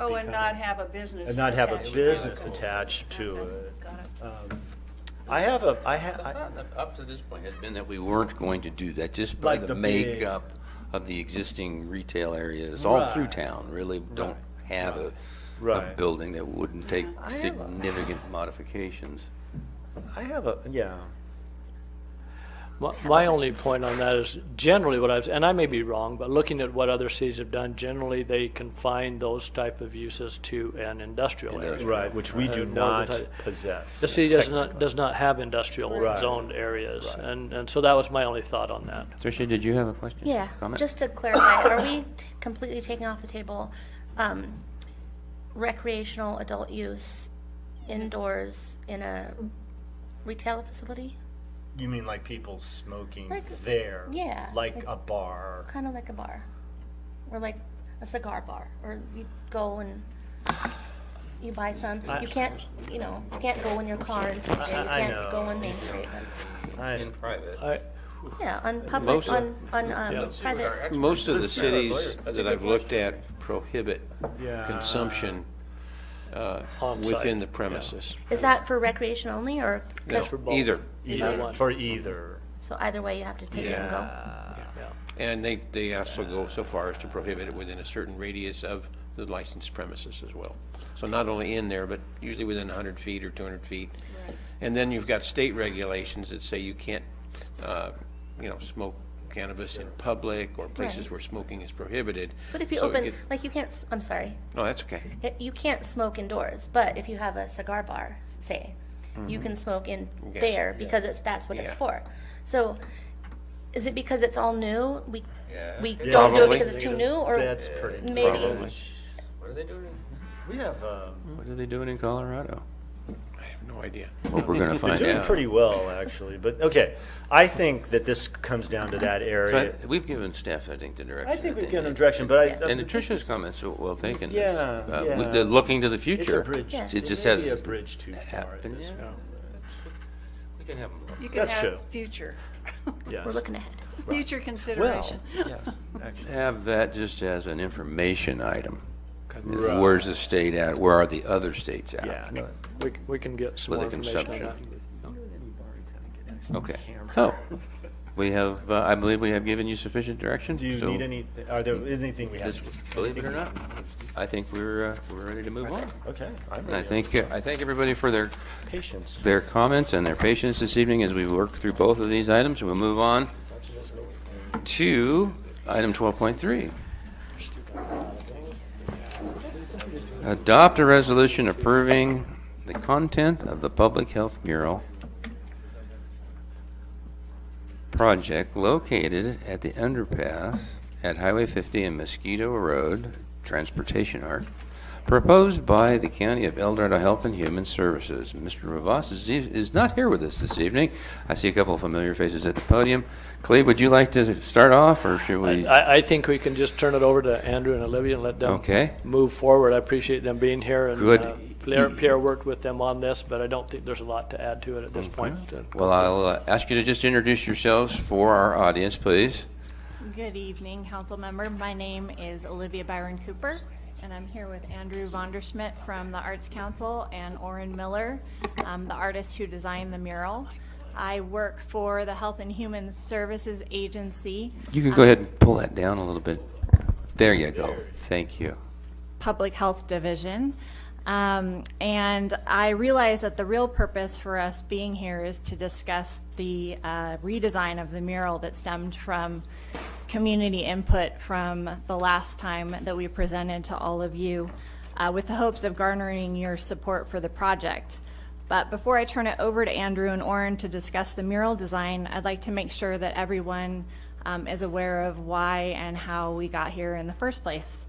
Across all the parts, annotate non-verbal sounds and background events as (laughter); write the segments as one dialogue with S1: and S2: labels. S1: Oh, and
S2: becoming-
S1: not have a business.
S2: and not have a
S1: attached.
S2: business
S1: Okay.
S2: attached to
S1: Okay,
S2: it.
S1: got it.
S2: Um, I have a, I
S3: The
S2: have,
S3: thought that Up to this point has been that we weren't going to do that, just by
S2: Like the
S3: the
S2: big-
S3: makeup of the existing retail areas all through
S2: Right.
S3: town, really don't have a, a
S2: Right.
S3: building that wouldn't take
S2: I have a-
S3: significant modifications.
S2: I have a, yeah.
S4: My, my only point on that is generally what I've, and I may be wrong, but looking at what other cities have done, generally they confine those type of uses to an industrial area.
S3: Industrial.
S2: Right, which we do
S4: And more of the
S2: not
S4: type-
S2: possess.
S4: The city does not, does not have industrial
S2: Right.
S4: zoned areas, and, and so that was my only thought on that.
S3: Tricia, did you have a question?
S5: Yeah,
S3: Comment?
S5: just to clarify, are we t- completely taking off the table um, recreational adult use indoors in a retail facility?
S2: You mean like people smoking
S5: Like-
S2: there?
S5: yeah,
S2: Like
S5: like-
S2: a bar?
S5: Kind of like a bar, or like a cigar bar, or you go and you buy some. You can't, you know, you can't go in your car and smoke it. You
S2: I- I
S5: can't go
S2: know.
S5: on Main Street.
S2: I-
S3: In private.
S4: I,
S5: Yeah, on public,
S6: Most of-
S5: on, on
S4: Yeah.
S5: um, private.
S6: Most of the
S2: Let's hear our
S6: cities
S2: lawyers. That's a
S6: that
S2: good Ah,
S6: I've looked at prohibit
S2: Yeah.
S6: consumption uh,
S4: On-site,
S6: within the
S4: yeah.
S6: premises.
S5: Is that for recreation only, or?
S6: No,
S5: 'cause-
S4: both.
S6: Either.
S2: Either,
S4: one.
S2: for either.
S5: So either way, you have to take it and go.
S2: Yeah.
S4: yeah.
S6: And they, they also go so far as to prohibit it within a certain radius of the licensed premises as well. So not only in there, but usually within 100 feet or 200 feet. And then you've got state regulations that say you can't, uh, you know, smoke cannabis in public or places
S5: Right.
S6: where smoking is prohibited.
S5: But if you
S6: So it
S5: open,
S6: get-
S5: like you can't, s- I'm sorry,
S6: No, that's okay.
S5: It- you can't smoke indoors, but if you have a cigar bar, s- say, you can smoke in
S6: Mm-hmm. Yeah.
S5: there because it's, that's what it's
S6: Yeah.
S5: for. So is it because it's all new? We,
S3: Yeah.
S5: we
S2: Yeah.
S5: don't do it
S6: Probably.
S5: because it's too new or
S2: That's pretty.
S5: maybe?
S6: Probably.
S3: What are they doing?
S2: We have, um,
S3: What are they doing in Colorado?
S6: I have no idea.
S3: Hope we're (laughs) gonna
S2: they're
S3: find
S2: doing
S3: out.
S2: pretty well, actually, but, okay. I think that this comes down to that area.
S3: So I- We've given staff, I think, the direction.
S2: I think
S3: that
S2: we've
S3: they
S2: given them
S3: need.
S2: direction, but I.
S3: And Tricia's comments were well taken. is,
S2: Yeah,
S3: uh, we-
S2: yeah.
S3: They're looking to the future.
S2: It's a bridge.
S5: Yeah.
S3: It just
S2: may be a
S3: has,
S2: bridge too far at
S3: happened,
S2: this
S3: yeah.
S2: point.
S3: we can have them look.
S1: You can
S2: That's true.
S1: have future,
S2: Yes.
S5: We're looking ahead.
S1: future consideration.
S2: yes, actually.
S3: have that just as an information item.
S2: Right.
S3: Where's the state at? Where are the other states at?
S2: Yeah, no,
S4: We, we can get some more
S3: With the
S4: information on that.
S3: consumption. Okay. So, we have, uh, I believe we have given you sufficient direction.
S2: Do you
S3: so
S2: need any, are there, is anything we have?
S3: this- Believe it or not, I think we're, uh, we're ready to move on.
S2: Okay, I'm
S3: And I
S2: ready.
S3: think, uh, I thank everybody for their,
S2: Patience.
S3: their comments and their patience this evening as we work through both of these items. We'll move on to item 12.3. Adopt a resolution approving the content of the Public Health Mural project located at the underpass at Highway 50 and Mosquito Road, Transportation Arc, proposed by the County of El Dorado Health and Human Services. Mr. Rivas is, e, is not here with us this evening. I see a couple of familiar faces at the podium. Cleve, would you like to start off, or should we?
S4: I, I think we can just turn it over to Andrew and Olivia and let them
S3: Okay.
S4: move forward. I appreciate them being here and
S3: Good.
S4: uh, Pierre, Pierre worked with them on this, but I don't think there's a lot to add to it at this point. Uh,
S3: Well, I'll uh, ask you to just introduce yourselves for our audience, please.
S7: Good evening, council member. My name is Olivia Byron Cooper, and I'm here with Andrew Vonderschmidt from the Arts Council and Orrin Miller, um, the artist who designed the mural. I work for the Health and Human Services Agency,
S3: You can go ahead and pull that down a little bit. There you go. Thank you.
S7: Public Health Division. Um, and I realize that the real purpose for us being here is to discuss the uh, redesign of the mural that stemmed from community input from the last time that we presented to all of you uh, with the hopes of garnering your support for the project. But before I turn it over to Andrew and Orrin to discuss the mural design, I'd like to make sure that everyone um, is aware of why and how we got here in the first place.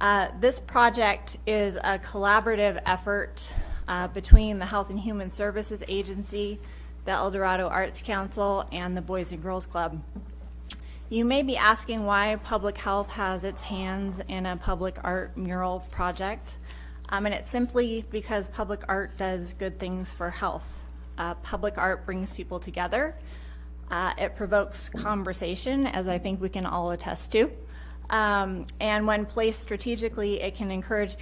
S7: Uh, This project is a collaborative effort uh, between the Health and Human Services Agency, the El Dorado Arts Council, and the Boys and Girls Club. You may be asking why public health has its hands in a public art mural project. Um, and it's simply because public art does good things for health. Uh, public art brings people together. Uh, it provokes conversation, as I think we can all attest to. Um, and when placed strategically, it can encourage